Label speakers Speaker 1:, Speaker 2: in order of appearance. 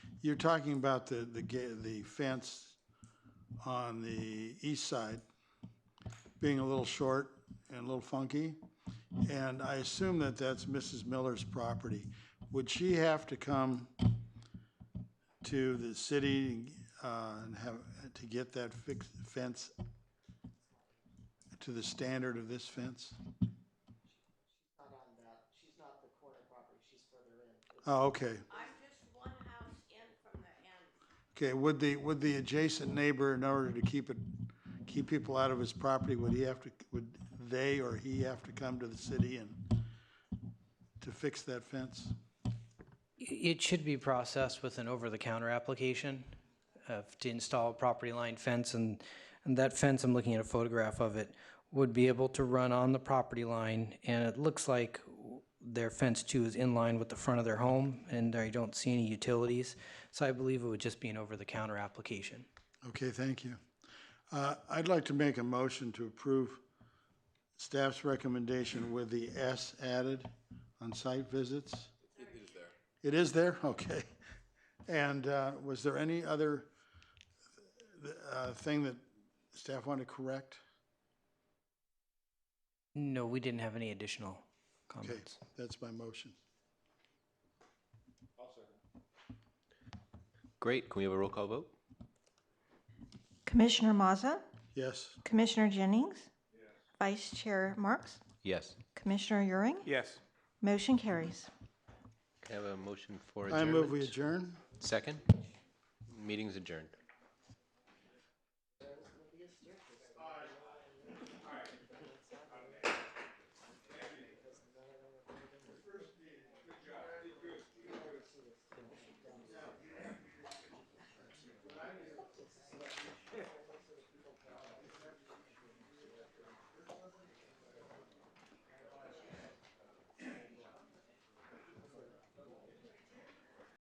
Speaker 1: You're talking about the, the ga- the fence on the east side being a little short and a little funky. And I assume that that's Mrs. Miller's property. Would she have to come to the city, uh, and have, to get that fixed fence to the standard of this fence?
Speaker 2: not on that, she's not um, the corner property, she's further in.
Speaker 1: Oh, okay.
Speaker 3: I'm just one house in from the end.
Speaker 1: Okay, would the, would the adjacent neighbor, in order to keep it, keep people out of his property, would he have to, would they or he have to come to the city and to fix that fence?
Speaker 4: It should be processed with an over-the-counter application uh, to install a property line fence, and and that fence, I'm looking at a photograph of it, would be able to run on the property line, and it looks like their fence too is in line with the front of their home, and I don't see any utilities, so I believe it would just be an over-the-counter application.
Speaker 1: Okay, thank you. Uh, I'd like to make a motion to approve staff's recommendation with the S added on site visits. It is there. It is there? Okay. And uh, was there any other uh, thing that staff wanted to correct?
Speaker 4: No, we didn't have any additional
Speaker 1: Okay,
Speaker 4: comments.
Speaker 1: that's my motion.
Speaker 5: Great. Can we have a roll call vote?
Speaker 6: Commissioner Mazza,
Speaker 1: Yes,
Speaker 6: Commissioner Jennings, Vice Chair Marks,
Speaker 5: Yes.
Speaker 6: Commissioner Euring,
Speaker 7: Yes.
Speaker 6: motion carries.
Speaker 5: Can I have a motion for
Speaker 1: I
Speaker 5: adjournment?
Speaker 1: move we adjourn.
Speaker 5: Second? Meeting's adjourned.